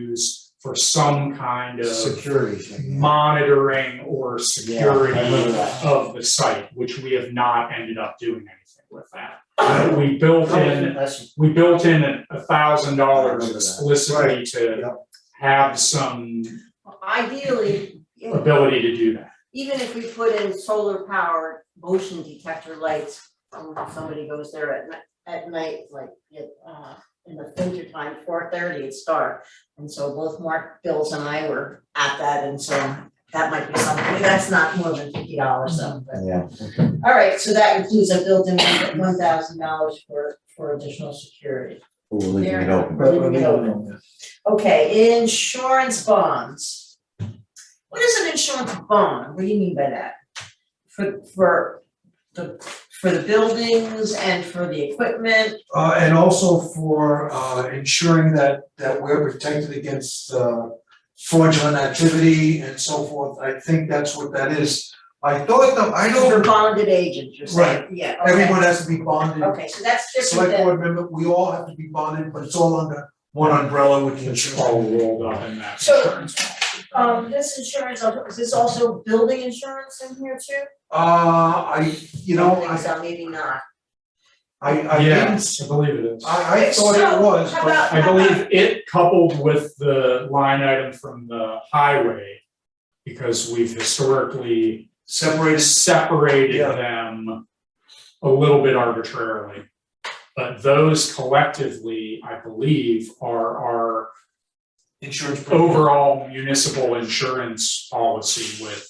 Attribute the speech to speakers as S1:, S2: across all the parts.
S1: used for some kind of
S2: Security thing.
S1: monitoring or security
S2: Yeah, I remember that.
S1: of the site, which we have not ended up doing anything with that. We built in,
S2: That's-
S1: we built in a- a thousand
S2: I remember
S1: dollars
S2: that.
S1: explicitly to
S2: yeah.
S1: have some
S3: Ideally, you know,
S1: ability to do that.
S3: even if we put in solar powered motion detector lights, um, if somebody goes there at night, at night, like, it, uh, in the winter time, four thirty, it's dark. And so both Mark, Bills and I were at that, and so that might be something, that's not more than fifty dollars, so, but.
S2: Yeah.
S3: All right, so that includes a built-in one thousand dollars for, for additional security.
S4: We're leaving it
S3: Fair.
S4: open.
S2: But we're leaving it open.
S3: Okay, insurance bonds. What is an insurance bond? What do you mean by that? For, for the, for the buildings and for the equipment?
S2: Uh, and also for, uh, ensuring that, that we're protected against, uh, fraudulent activity and so forth. I think that's what that is. I thought though, I
S3: For
S2: don't,
S3: bonded agents, you're saying? Yeah, okay.
S2: everyone has to be bonded.
S3: Okay, so that's different
S2: Select
S3: than,
S2: board member, we all have to be bonded, but it's all under one umbrella with the
S1: It's
S2: insurance.
S1: all rolled up in that
S3: So-
S1: insurance.
S3: um, this insurance, is this also building insurance in here too?
S2: Uh, I, you know,
S3: I think
S2: I,
S3: so, maybe not.
S2: I, I didn't,
S1: Yes, I believe it is.
S2: I, I thought it
S3: So,
S2: was,
S3: how
S2: but
S3: about-
S1: I believe it coupled with the line item from the highway, because we've historically
S2: separated
S1: separated
S2: Yeah.
S1: them a little bit arbitrarily. But those collectively, I believe, are our
S2: insurance. program.
S1: overall municipal insurance policy with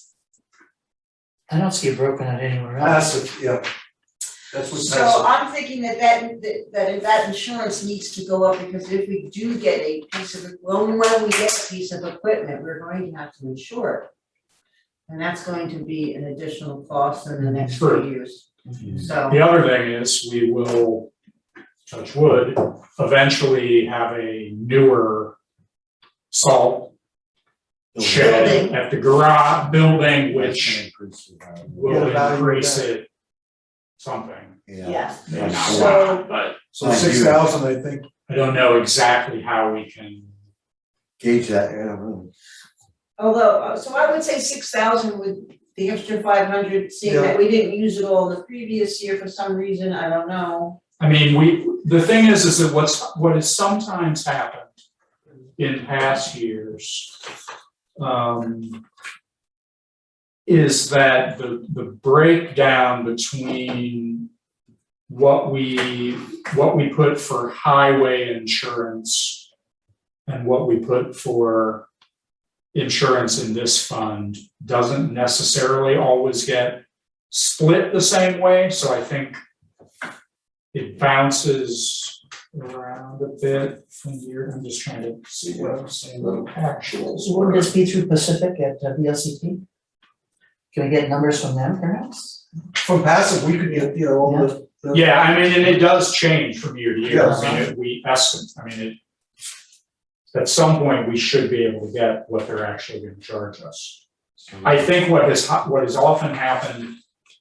S5: I don't see it broken out anywhere else.
S2: Passive, yeah. That's what's
S3: So
S2: passive.
S3: I'm thinking that that, that- that that insurance needs to go up, because if we do get a piece of, when, when we get a piece of equipment, we're going to have to insure it. And that's going to be an additional cost in the next few
S1: True.
S3: years, so,
S1: The other thing is, we will, touch wood, eventually have a newer salt shed
S3: Building.
S1: at the garage building, which will
S2: Yeah, value
S1: increase
S2: back.
S1: it something.
S3: yeah,
S4: Yeah.
S1: Not a
S3: So-
S1: lot, But
S2: So six thousand, I think,
S1: I don't know exactly how we can,
S4: Gauge that, yeah, really.
S3: although, uh, so I would say six thousand with the extra five hundred, seeing that we didn't use it all the previous year for some reason, I don't know.
S1: I mean, we, the thing is, is that what's, what has sometimes happened in past years um, is that the, the breakdown between what we, what we put for highway insurance and what we put for insurance in this fund doesn't necessarily always get split the same way, so I think it bounces around a bit from here, I'm just trying to see what I'm saying, little actuals
S5: So wouldn't this be through Pacific at uh, VLCT? Can we get numbers from them perhaps?
S2: from passive, we could get, you know, all the. the-
S1: Yeah, I mean, and it does change from year to year, I
S2: Yes.
S1: mean, it- we estimate, I mean, it. At some point, we should be able to get what they're actually gonna charge us. I think what has, hap- what has often happened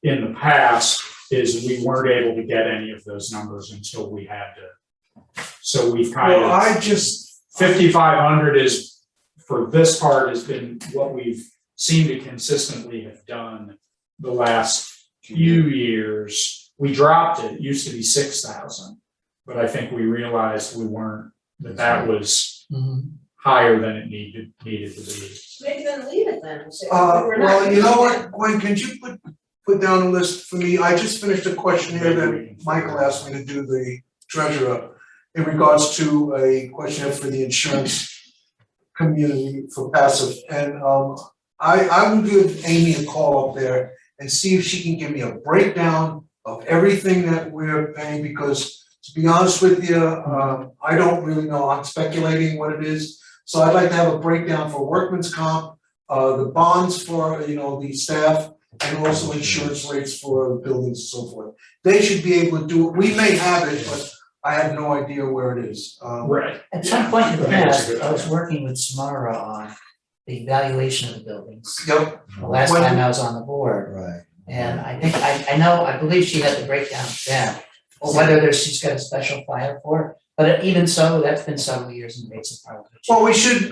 S1: in the past is we weren't able to get any of those numbers until we had to. So we've kind of.
S2: Well, I just,
S1: fifty-five hundred is, for this part, has been what we've seemed to consistently have done the last few
S2: Mm-hmm.
S1: years. We dropped it, it used to be six thousand, but I think we realized we weren't, that that was
S5: Mm-hmm.
S1: higher than it needed, needed to be.
S3: Maybe then leave it then, and say,
S2: uh,
S3: we're not
S2: well, you know
S3: using it.
S2: what, Gwen, could you put, put down a list for me? I just finished a questionnaire
S1: Maybe we
S2: that
S1: can-
S2: Michael asked me to do the treasurer in regards to a questionnaire for the insurance community for passive. And, um, I, I will give Amy a call up there and see if she can give me a breakdown of everything that we're paying, because to be honest with you, um, I don't really know, I'm speculating what it is. So I'd like to have a breakdown for workman's comp, uh, the bonds for, you know, the staff, and also insurance rates for buildings and so forth. They should be able to do it, we may have it, but I have no idea where it is, um,
S1: Right.
S5: At some point in the
S1: I think that's a
S5: past,
S1: good
S5: I was
S1: idea.
S5: working with Samara on the valuation of the buildings,
S2: yep,
S5: the last
S2: When-
S5: time I was on the board.
S4: Right.
S5: And I think, I I know, I believe she had the breakdown then, or whether there's, she's got a special file for it. But even so, that's been several years and rates have probably changed.
S2: well, we should,